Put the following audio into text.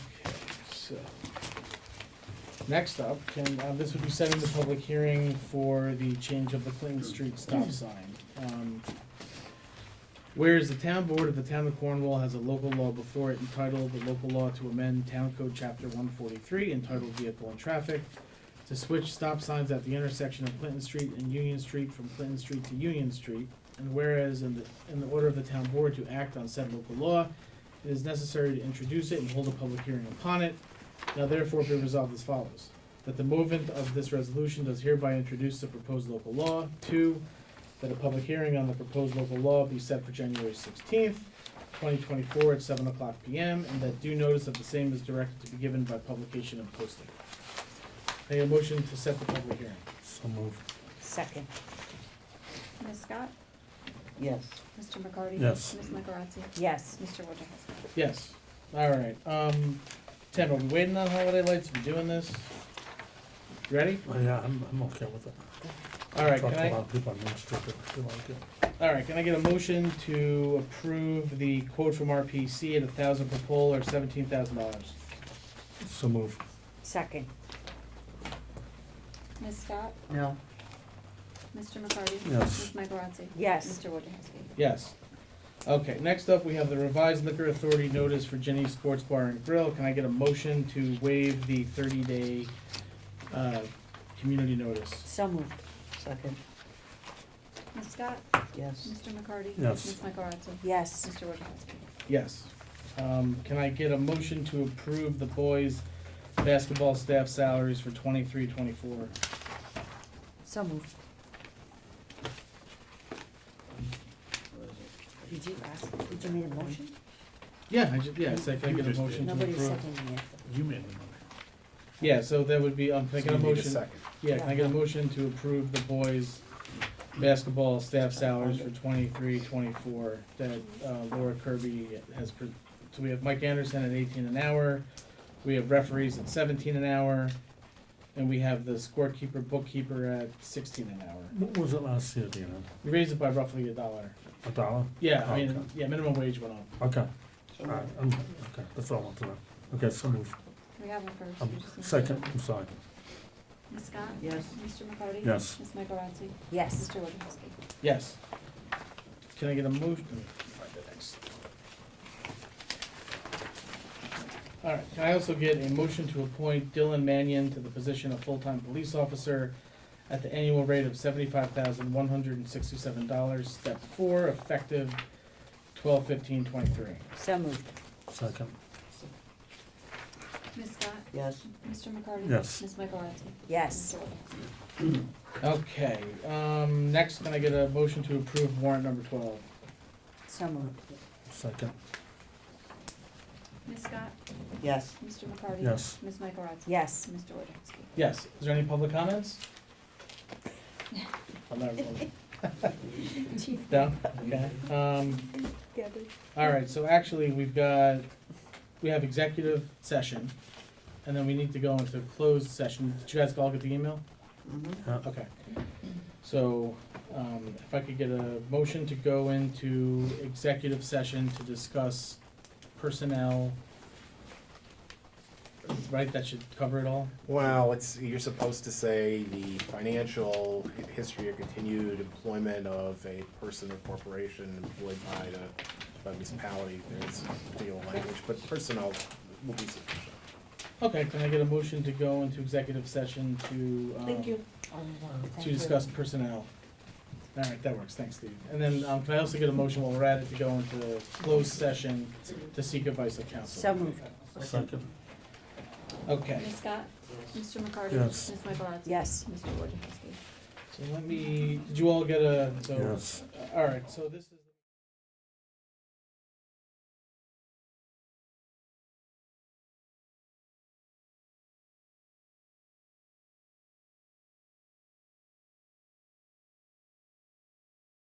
So, next up, can, uh, this would be setting the public hearing for the change of the Clinton Street stop sign. Um, Whereas the town board of the town of Cornwall has a local law before it entitled the local law to amend town code chapter one forty-three entitled vehicle and traffic to switch stop signs at the intersection of Clinton Street and Union Street from Clinton Street to Union Street. And whereas in the, in the order of the town board to act on said local law, it is necessary to introduce it and hold a public hearing upon it. Now therefore be resolved as follows, that the movement of this resolution does hereby introduce the proposed local law. Two, that a public hearing on the proposed local law be set for January sixteenth, twenty twenty-four at seven o'clock PM, and that due notice of the same is directed to be given by publication and posting. May I have a motion to set the public hearing? So moved. Second, Ms. Scott? yes. Mr. McCarty? Yes. Ms. Michaelotti? Yes. Mr. Wojciechowski? Yes, alright, um, Tim, are we waiting on holiday lights, are we doing this? Ready? Oh, yeah, I'm, I'm okay with it. Alright, Talked can to a I, lot of people on Main Street that they like it. All right, can I get a motion to approve the quote from RPC at a thousand per pole or seventeen thousand dollars? So moved. Second, Ms. Scott? no. Mr. McCarty? Yes. Ms. Michaelotti? Yes. Mr. Wojciechowski? Yes. Okay, next up, we have the revised liquor authority notice for Jenny's Sports Bar and Grill. Can I get a motion to waive the thirty-day, uh, community notice? So moved. Second, Ms. Scott? yes. Mr. McCarty? Yes. Ms. Michaelotti? Yes. Mr. Wojciechowski? Yes. Um, can I get a motion to approve the boys' basketball staff salaries for twenty-three, twenty-four? So moved. Did you ask, did you make a motion? Yeah, I ju- yeah, I said, can I You get a just did. motion to approve? Nobody's seconding it. You made the motion. Yeah, so that would be, um, I'm thinking a So you need motion. second. Yeah, can I get a motion to approve the boys' basketball staff salaries for twenty-three, twenty-four that uh, Laura Kirby has, pre- so we have Mike Anderson at eighteen an hour, we have referees at seventeen an hour, and we have the scorekeeper, bookkeeper at sixteen an hour. What was it last year, do you know? We raised it by roughly a dollar. A dollar? Yeah, I mean, Okay. yeah, minimum wage went up. Okay. All right, I'm, okay, that's all I want to know. Okay, so moved. We have a first. Um, you just need to- second, I'm sorry. Ms. Scott? Yes. Mr. McCarty? Yes. Ms. Michaelotti? Yes. Mr. Wojciechowski? Yes. Can I get a motion? let me find the next. All right, can I also get a motion to appoint Dylan Mannion to the position of full-time police officer at the annual rate of seventy-five thousand one hundred and sixty-seven dollars, step four, effective twelve fifteen twenty-three? So moved. Second, Ms. Scott? Yes. Mr. McCarty? Yes. Ms. Michaelotti? Yes. Mr. Wojciechowski? Okay, um, next, can I get a motion to approve warrant number twelve? So moved. second, Ms. Scott? Yes. Mr. McCarty? yes. Ms. Michaelotti? Yes. Mr. Wojciechowski? Yes, is there any public comments? I'll never vote. No? Okay, um, all right, so actually, we've got, we have executive session, and then we need to go into closed session. Did you guys all get the email? Mm-hmm. Yeah. Okay. So, um, if I could get a motion to go into executive session to discuss personnel, right, that should cover it all? Well, it's, you're supposed to say the financial history or continued employment of a person or corporation employed by the, by municipality, there's particular language, but personnel will be sufficient. Okay, can I get a motion to go into executive session to, um, to discuss personnel? All right, that works, thanks, Steve. And then, um, can I also get a motion while we're at it to go into closed session to seek advice of counsel? So moved. Second, Okay, Ms. Scott? Mr. McCarty? Yes. Ms. Michaelotti? Yes. Mr. Wojciechowski? so let me, did you all get a, so, yes. all right, so this is.